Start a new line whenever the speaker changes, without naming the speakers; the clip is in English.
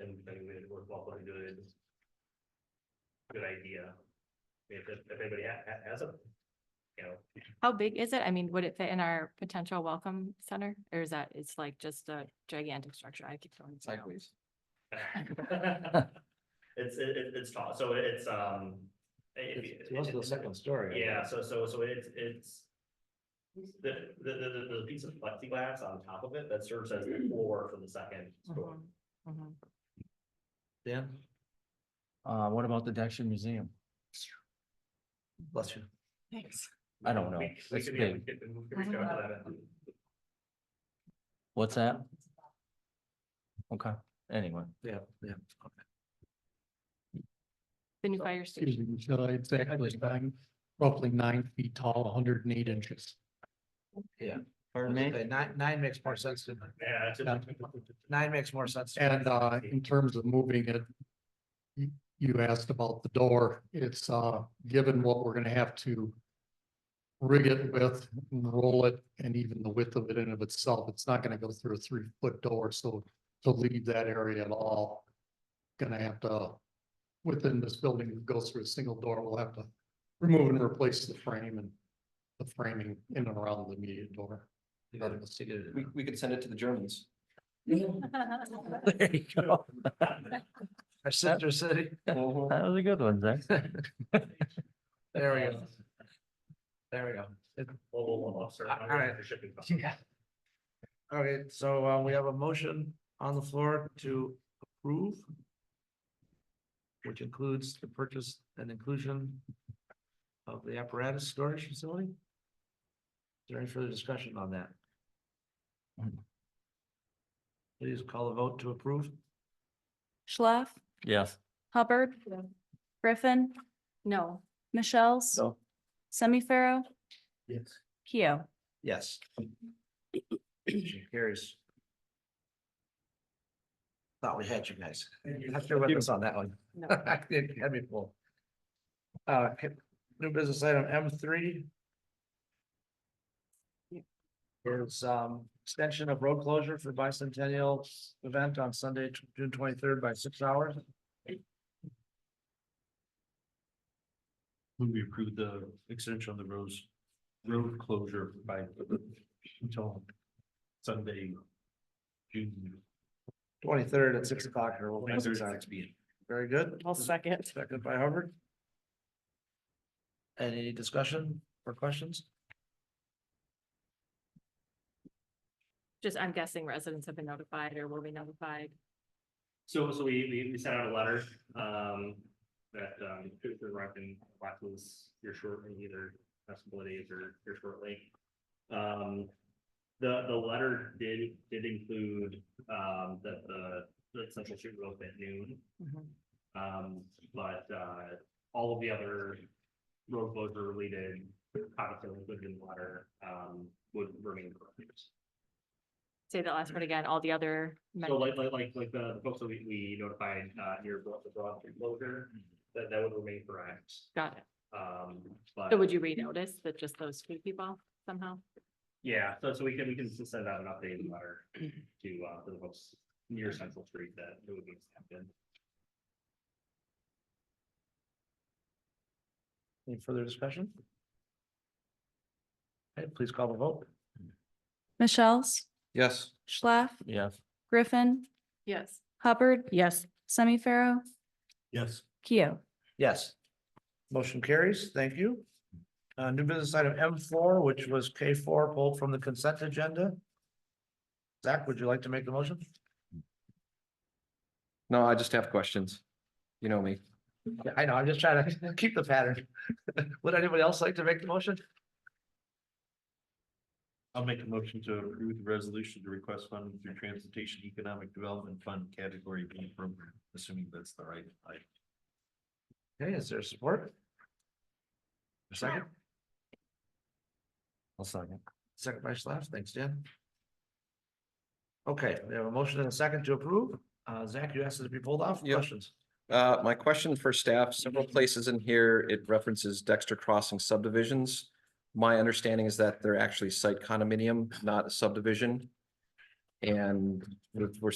and I think we made it worthwhile, but a good. Good idea. If, if if anybody ha- ha- has a, you know,
How big is it? I mean, would it fit in our potential welcome center? Or is that, it's like just a gigantic structure? I keep throwing. things out.
sideways.
It's, it, it- it's tall, so it's, um. if you-
It's also the second story.
Yeah, so, so, so it's, it's. The, the, the, the- the piece of plexiglass on top of it that serves as the floor for the second story.
Mhm, mhm.
Dan? Uh, what about the Dexter Museum? Bless you.
Thanks.
I don't know.
We- We
That's
could, yeah, we
big.
could, we could reach out to that.
What's that? Okay, anyway.
Yeah, yeah.
The new fire station.
Excuse me, so it's actually nine, roughly nine feet tall, hundred and eight inches.
Pardon
Okay, Nine, nine makes more sense to me.
Yeah, it's
Yeah.
Nine makes more sense. to me.
And uh, in terms of moving it, you, you asked about the door. It's uh, given what we're gonna have to rig it with, roll it, and even the width of it in of itself, it's not gonna go through a three-foot door, so to leave that area at all, gonna have to, within this building, it goes through a single door, we'll have to remove and replace the frame and the framing in and around the immediate door.
You gotta let's take it.
We, we could send it to the Germans.
That
There you go.
Our sister city,
That was a good one, Zach.
there we go. There we go.
Well, well, well, well, sir,
All
I'm
right.
for shipping costs.
Yeah. Okay, so uh, we have a motion on the floor to approve. Which includes the purchase and inclusion of the apparatus storage facility. Is there any further discussion on that? Please call a vote to approve.
Schlaf,
Yes.
Hubbard, Griffin,
No,
Michelle's.
No.
Semi Pharaoh,
Yes.
Keo.
Yes. Motion Carries. Thought we had you guys. Not sure what was on that one.
no.
It Had me full. Uh, new business item M three. Is um extension of road closure for bicentennial event on Sunday, June twenty-third by six hours.
When we approved the extension on the roads, road closure by until Sunday. June.
Twenty-third at six o'clock or we'll make
23rd
six
at
hours.
6 p.m.
Very good.
I'll second.
Second by Hubbard. Any discussion or questions?
Just, I'm guessing residents have been notified or will be notified.
So, so we, we, we sent out a letter, um, that, um, Coop and Rock and Blackwood's here shortly, either festival days or here shortly. Um, the, the letter did, did include, um, that the, the central street will open at noon.
Mhm.
Um, but, uh, all of the other road closure related topics that were included in the letter, um, would remain correct.
Say that last part again, all the other. men-
So like, like, like, like the the folks that we, we notified, uh, near Broad, the Broad Street closure, that, that would remain correct.
Got it.
Um, but,
So would you renotice that just those few people somehow?
yeah, so, so we can, we can s- send out an updated letter to, uh, to the folks near Central Street that it would be accepted.
Any further discussion? Okay, please call the vote.
Michelle's,
Yes.
Schlaf,
Yes.
Griffin,
Yes.
Hubbard. Yes. Semi Pharaoh,
Yes.
Keo.
Yes. Motion carries. Thank you. Uh, new business item M four, which was K four pulled from the consent agenda. Zach, would you like to make the motion?
No, I just have questions. You know me.
Yeah, I know, I'm just trying to keep the pattern. Would anybody else like to make the motion?
I'll make a motion to approve the resolution to request funding through Transportation Economic Development Fund Category B program, assuming that's the right. item.
Okay, is there support? A Second,
I'll second.
second by Slav. Thanks, Dan. Okay, we have a motion and a second to approve. Uh, Zach, you asked it to be pulled off.
Yep.
Questions?
Uh, my question for staff, several places in here, it references Dexter Crossing subdivisions. My understanding is that they're actually site condominium, not a subdivision. And we're we're